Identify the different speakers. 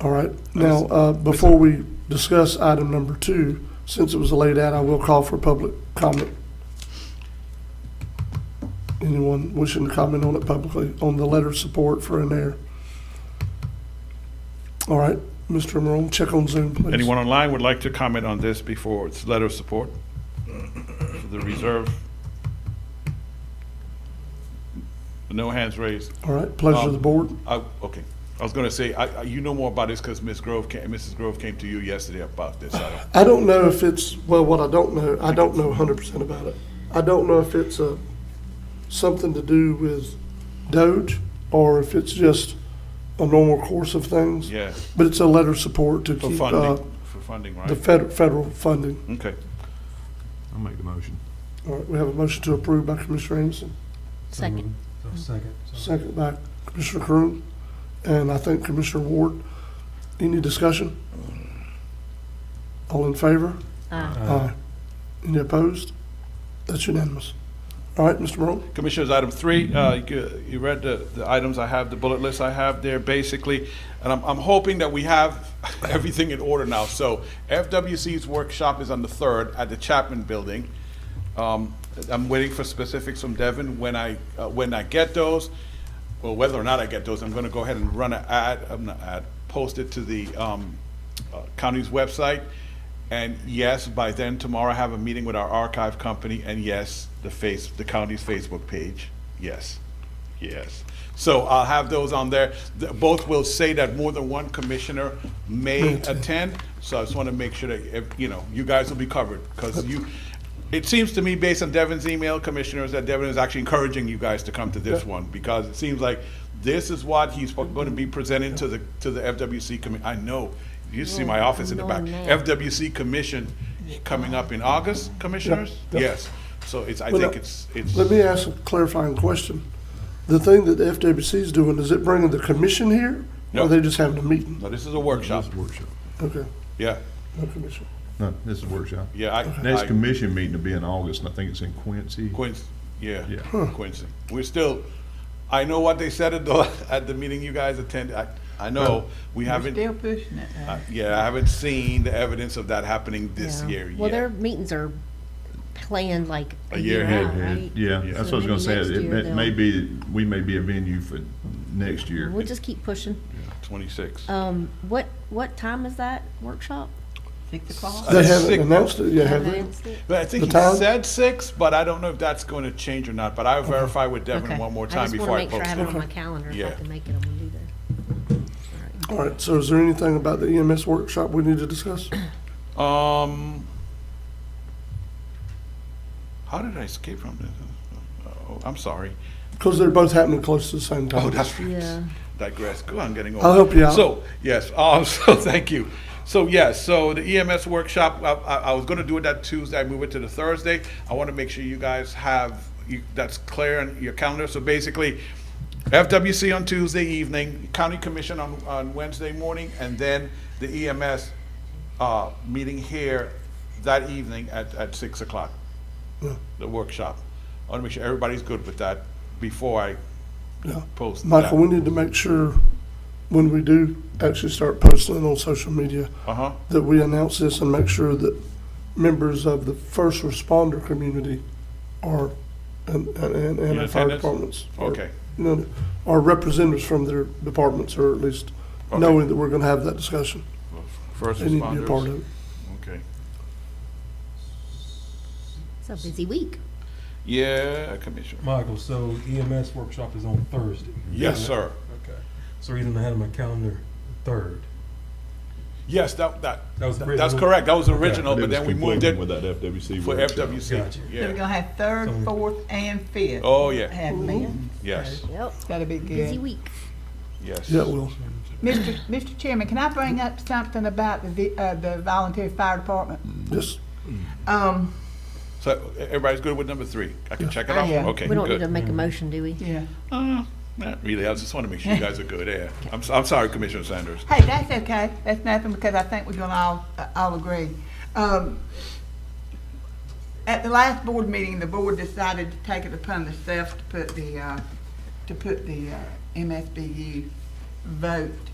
Speaker 1: All right. Now, uh, before we discuss item number two, since it was laid out, I will call for public comment. Anyone wishing to comment on it publicly, on the letter of support for an air? All right, Mr. Morone, check on Zoom, please.
Speaker 2: Anyone online would like to comment on this before its letter of support for the reserve? No hands raised.
Speaker 1: All right, pleasure of the board.
Speaker 2: I, okay. I was going to say, I, I- you know more about this because Ms. Grove came, Mrs. Grove came to you yesterday about this. I don't-
Speaker 1: I don't know if it's, well, what I don't know, I don't know hundred percent about it. I don't know if it's a, something to do with Doge, or if it's just a normal course of things.
Speaker 2: Yeah,
Speaker 1: But it's a letter of support to
Speaker 2: for
Speaker 1: keep, uh,
Speaker 2: funding, for funding,
Speaker 1: the
Speaker 2: right?
Speaker 1: fed- federal funding.
Speaker 2: Okay.
Speaker 3: I'll make the motion.
Speaker 1: All right, we have a motion to approve by Commissioner Anderson,
Speaker 4: Second.
Speaker 5: Second.
Speaker 1: second by Commissioner Crew, and I think Commissioner Ward. Any discussion? All in favor?
Speaker 2: Mm-hmm.
Speaker 4: Aye.
Speaker 2: Uh,
Speaker 1: Aye. Uh, Any opposed? That's unanimous. All right, Mr. Morone?
Speaker 2: Commissioners, item three, uh, you you read the the items I have, the bullet list I have there, basically, and I'm I'm hoping that we have everything in order now. So FWC's workshop is on the 3rd at the Chapman Building. Um, I'm waiting for specifics from Devin. When I, uh, when I get those, well, whether or not I get those, I'm going to go ahead and run an ad, I'm not ad, post it to the um, uh, county's website. And yes, by then tomorrow, I have a meeting with our archive company, and yes, the face, the county's Facebook page, yes, yes. So I'll have those on there. The- Both will say that more than one commissioner may attend, so I just want to make sure that, if- you know, you guys will be covered, because you, it seems to me, based on Devin's email, commissioners, that Devin is actually encouraging you guys to come to this one, because it seems like this is what he's going to be presenting to the, to the FWC committee. I know, you see my office in the back.
Speaker 4: No, no, man.
Speaker 2: FWC commission coming up in August, commissioners?
Speaker 1: Yeah.
Speaker 2: Yes, so it's, I
Speaker 1: Well,
Speaker 2: think
Speaker 1: now,
Speaker 2: it's, it's,
Speaker 1: Let me ask a clarifying question. The thing that the FWC is doing, is it bringing the commission here? Or
Speaker 2: No.
Speaker 1: are they just having a meeting?
Speaker 2: no, this is a workshop,
Speaker 3: Workshop.
Speaker 1: Okay,
Speaker 2: yeah,
Speaker 1: no commission.
Speaker 3: No, this is workshop.
Speaker 2: yeah. I-
Speaker 3: Next
Speaker 2: I-
Speaker 3: commission meeting will be in August, and I think it's in Quincy.
Speaker 2: Quincy, yeah,
Speaker 3: Yeah.
Speaker 2: Quincy. We're still, I know what they said at the, at the meeting you guys attended, I, I know, we haven't,
Speaker 6: Still pushing it. uh, though.
Speaker 2: I- yeah, I haven't seen the evidence of that happening this
Speaker 4: Yeah.
Speaker 2: year
Speaker 4: Well, their
Speaker 2: yet.
Speaker 4: meetings are planned like
Speaker 2: A
Speaker 4: a
Speaker 2: year
Speaker 4: year
Speaker 2: ahead.
Speaker 4: out, right?
Speaker 3: Yeah,
Speaker 2: Yeah.
Speaker 3: that's
Speaker 4: So maybe
Speaker 3: what I was gonna say.
Speaker 4: next
Speaker 3: It
Speaker 4: year
Speaker 3: may-
Speaker 4: they'll-
Speaker 3: may be, we may be a venue for next year.
Speaker 4: We'll just keep pushing.
Speaker 2: Twenty-six.
Speaker 4: Um, what, what time is that workshop?
Speaker 6: Six o'clock.
Speaker 2: Uh,
Speaker 1: They haven't
Speaker 2: sick.
Speaker 1: announced it yet, have they?
Speaker 4: Announced it?
Speaker 2: But I think
Speaker 1: The
Speaker 2: he
Speaker 1: time?
Speaker 2: said six, but I don't know if that's going to change or not, but I'll verify with Devin
Speaker 4: Okay.
Speaker 2: one more time before I
Speaker 4: I just want
Speaker 2: post
Speaker 4: to make sure I have it on my
Speaker 2: it.
Speaker 4: calendar, if
Speaker 2: Yeah.
Speaker 4: I can make it, I'm gonna do that.
Speaker 1: All right, so is there anything about the EMS workshop we need to discuss?
Speaker 2: Um, how did I escape from this? Oh, I'm sorry.
Speaker 1: Because they're both happening close to the same
Speaker 2: Oh,
Speaker 1: time.
Speaker 2: that's right.
Speaker 4: Yeah.
Speaker 2: Digress. Go on, getting old.
Speaker 1: I'll help you out.
Speaker 2: So, yes, um, so thank you. So, yes, so the EMS workshop, I, I, I was gonna do it that Tuesday, I moved it to the Thursday. I wanna make sure you guys have, you, that's clear in your calendar. So basically, FWC on Tuesday evening, County Commission on, on Wednesday morning, and then the EMS, uh, meeting here that evening at, at six o'clock. The workshop. I wanna make sure everybody's good with that before I
Speaker 1: Yeah.
Speaker 2: post that.
Speaker 1: Michael, we need to make sure when we do actually start posting on social media
Speaker 2: Uh-huh.
Speaker 1: that we announce this and make sure that members of the first responder community are, and, and- and, and our fire
Speaker 2: attendance?
Speaker 1: departments. are-
Speaker 2: Okay.
Speaker 1: you know, our representatives from their departments, or at least
Speaker 2: Okay.
Speaker 1: knowing that we're gonna have that discussion.
Speaker 2: First
Speaker 1: They need to be a part of
Speaker 2: responders.
Speaker 1: it.
Speaker 2: Okay.
Speaker 4: It's a busy week.
Speaker 2: Yeah, Commissioner.
Speaker 5: Michael, so EMS workshop is on Thursday.
Speaker 2: Yes, sir.
Speaker 5: Okay. So reason I had on my calendar third.
Speaker 2: Yes, that, that,
Speaker 5: That was
Speaker 2: that's
Speaker 5: original?
Speaker 2: correct. That was
Speaker 5: Okay.
Speaker 2: original,
Speaker 3: It
Speaker 2: but
Speaker 3: was
Speaker 2: then we moved
Speaker 3: conflicting
Speaker 2: it
Speaker 3: With that FWC
Speaker 2: for
Speaker 3: workshop.
Speaker 2: FWC.
Speaker 5: Gotcha.
Speaker 6: So we're
Speaker 2: Yeah.
Speaker 6: gonna have third, fourth, and fifth.
Speaker 2: Oh, yeah.
Speaker 6: Have men.
Speaker 2: Yes,
Speaker 4: Yep,
Speaker 6: That'll be
Speaker 4: busy
Speaker 6: good.
Speaker 4: week.
Speaker 2: yes.
Speaker 1: Yeah, well,
Speaker 6: Mr. Mr. Chairman, can I bring up something about the, vi- uh, the volunteer fire department?
Speaker 1: yes,
Speaker 6: Um,
Speaker 2: So e, everybody's good with number three? I can check it
Speaker 4: I-
Speaker 2: off?
Speaker 6: Yeah.
Speaker 2: Okay,
Speaker 4: We don't need to
Speaker 2: good.
Speaker 4: make a motion, do we?
Speaker 6: yeah.
Speaker 2: Uh, Not really. I just want to make sure you guys are good. Yeah. I'm, s- I'm sorry, Commissioner Sanders.
Speaker 6: Hey, that's okay. That's nothing because I think we're gonna all, uh, all agree. Um, at the last board meeting, the board decided to take it upon themselves to put the, uh, to put the, uh, MSBU vote